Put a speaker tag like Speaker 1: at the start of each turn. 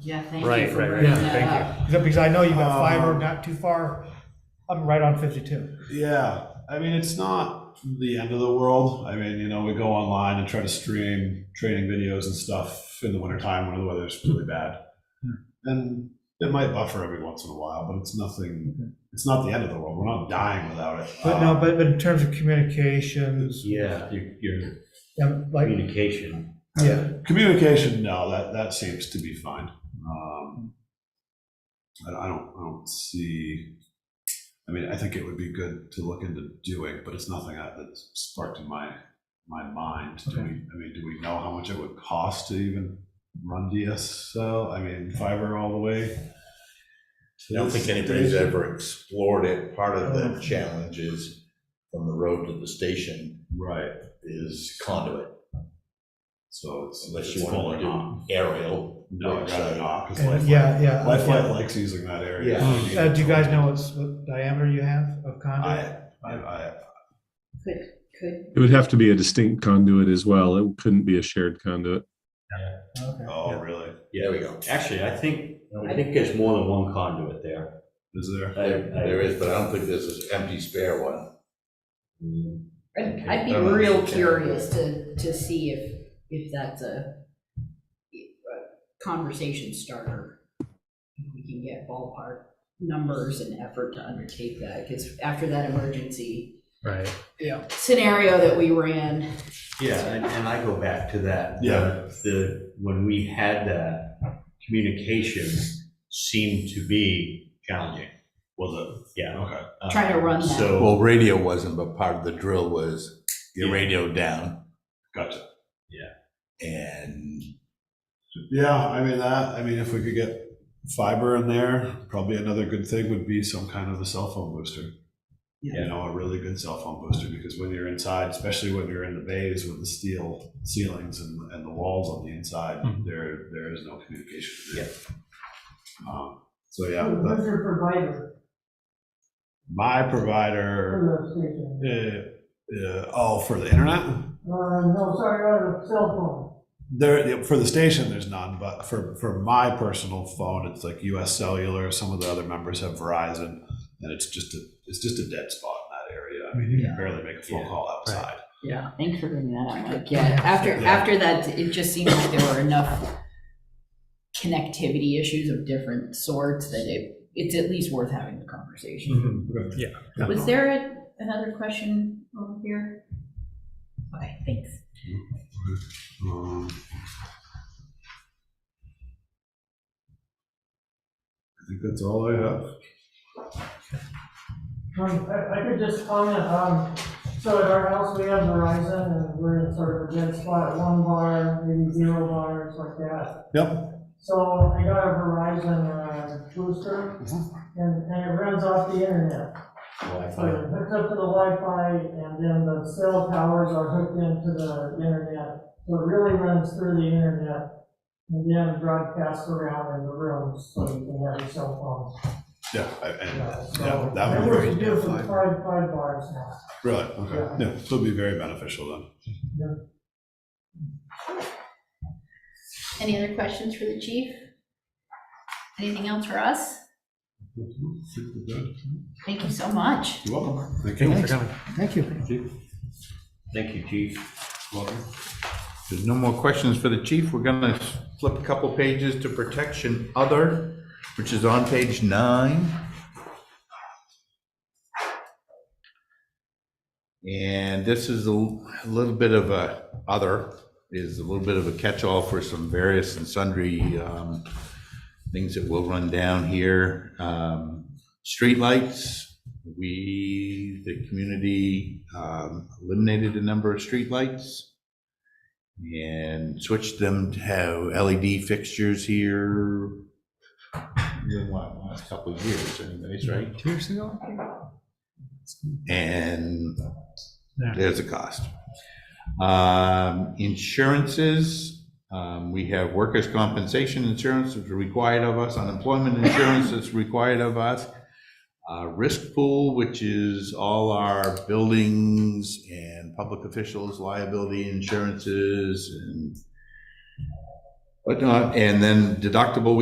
Speaker 1: Yeah, thank
Speaker 2: Right,
Speaker 1: you for
Speaker 2: right, right.
Speaker 1: bringing
Speaker 3: Yeah,
Speaker 1: that
Speaker 2: thank you.
Speaker 1: up.
Speaker 3: Because I know you've got fiber
Speaker 4: Um,
Speaker 3: not too far, I'm right on fifty-two.
Speaker 4: Yeah, I mean, it's not the end of the world. I mean, you know, we go online and try to stream training videos and stuff in the wintertime when the weather's really bad.
Speaker 3: Hmm.
Speaker 4: And it might buffer every once in a while, but it's nothing, it's not the end of the world. We're not dying without it.
Speaker 3: But no, but, but in terms of communications,
Speaker 2: Yeah,
Speaker 4: Uh, you- Your
Speaker 3: um, like,
Speaker 2: communication.
Speaker 3: yeah,
Speaker 4: communication, no, that, that seems to be fine. Um, I don't- I don't, I don't see, I mean, I think it would be good to look into doing, but it's nothing that that sparked in my, my mind. Do we, I mean, do we know how much it would cost to even run DSL? I mean, fiber all the way?
Speaker 5: I don't think anybody's ever explored it. Part of the challenge is from the road to the station
Speaker 4: Right,
Speaker 5: is conduit,
Speaker 4: so it's.
Speaker 5: unless
Speaker 4: it's
Speaker 5: you
Speaker 4: full or
Speaker 5: want to
Speaker 4: not.
Speaker 5: do aerial.
Speaker 4: No, I'd rather not, because
Speaker 3: and-
Speaker 4: Lifeline,
Speaker 3: uh, yeah, yeah.
Speaker 4: Lifeline likes using that area.
Speaker 5: Yeah.
Speaker 3: Uh, do you guys know what's, what diameter you have of conduit?
Speaker 4: I, I, I,
Speaker 1: Could, could,
Speaker 6: It would have to be a distinct conduit as well. It couldn't be a shared conduit.
Speaker 3: Okay.
Speaker 4: oh, really?
Speaker 2: Yeah,
Speaker 5: There we go.
Speaker 2: actually, I think, I think there's more than one conduit there.
Speaker 4: Is there?
Speaker 2: I-
Speaker 5: There
Speaker 2: I-
Speaker 5: there is, but I don't think there's this empty spare one.
Speaker 1: I'd- I'd be
Speaker 5: Okay. Um,
Speaker 1: real
Speaker 5: okay.
Speaker 1: curious to, to see if, if that's a a conversation starter. If We can get ballpark numbers and effort to undertake that, because after that emergency
Speaker 3: Right.
Speaker 1: scenario that we ran,
Speaker 2: Yeah, and, and I go back to that.
Speaker 4: Yeah.
Speaker 2: The, when we had that, communication seemed to be challenging.
Speaker 4: Was
Speaker 2: Yeah.
Speaker 4: Okay.
Speaker 2: Uh,
Speaker 1: Trying to run that.
Speaker 2: So,
Speaker 5: Well, radio wasn't, but part of the drill was your radio down
Speaker 4: Gotcha.
Speaker 5: and
Speaker 4: Yeah, I mean that. I mean, if we could get fiber in there, probably another good thing would be some kind of a cell phone booster.
Speaker 2: Yeah.
Speaker 4: You know, a really good cell phone booster because when you're inside, especially when you're in the bays with the steel ceilings and, and the walls on the inside,
Speaker 6: Mhm.
Speaker 4: there there is no communication. There. Um, so yeah,
Speaker 7: Who's
Speaker 4: that-
Speaker 7: your provider
Speaker 4: my provider.
Speaker 7: for the station?
Speaker 4: Uh, uh, oh, for the internet.
Speaker 7: Uh, no, sorry, uh, cell phone.
Speaker 4: There, for the station, there's none, but for, for my personal phone, it's like US Cellular, some of the other members have Verizon, and it's just a, it's just a dead spot in that area. I mean, you can barely make a phone call outside.
Speaker 1: Yeah, thanks for bringing that up, Mike. Yeah, after, after that, it just seemed like there were enough connectivity issues of different sorts that it, it's at least worth having the conversation.
Speaker 4: Mm-hmm.
Speaker 1: Was there a- another question over here? Okay, thanks.
Speaker 4: Um, I think that's all I have.
Speaker 7: Um, I, I could just comment, um, so at our house, we have Verizon, and we're in sort of a dead spot, one bar, maybe zero bars, like that.
Speaker 4: Yep.
Speaker 7: So I got a Verizon uh, booster, and, and it runs off the internet. So
Speaker 2: Wi-Fi.
Speaker 7: it hooks up to the Wi-Fi, and then the cell towers are hooked into the internet. So it really runs through the internet, and then broadcasts around in the rooms, so you can have your cell
Speaker 4: Yeah, I-
Speaker 7: phone.
Speaker 4: and,
Speaker 7: uh, so-
Speaker 4: yeah, that would
Speaker 7: And
Speaker 4: be,
Speaker 7: we're doing five, five bars now.
Speaker 4: really, okay, yeah, so it'd be very beneficial then.
Speaker 1: Any other questions for the chief? Anything else for us? Thank you so much.
Speaker 4: You're welcome. Thank you.
Speaker 3: Thank you.
Speaker 2: Thank you, chief.
Speaker 4: Welcome.
Speaker 5: There's no more questions for the chief. We're gonna flip a couple pages to protection other, which is on page nine. And this is a l- a little bit of a, other is a little bit of a catch-all for some various and sundry um, things that we'll run down here. Um, Streetlights, we, the community um, eliminated a number of streetlights and switched them to have LED fixtures here. In what, last couple of years, anyways, right? Two years ago? And there's a cost. Um, Insurances, um, we have workers' compensation insurance that's required of us, unemployment insurance that's required of us. uh, Risk pool, which is all our buildings and public officials liability insurances and But, uh, and then deductible,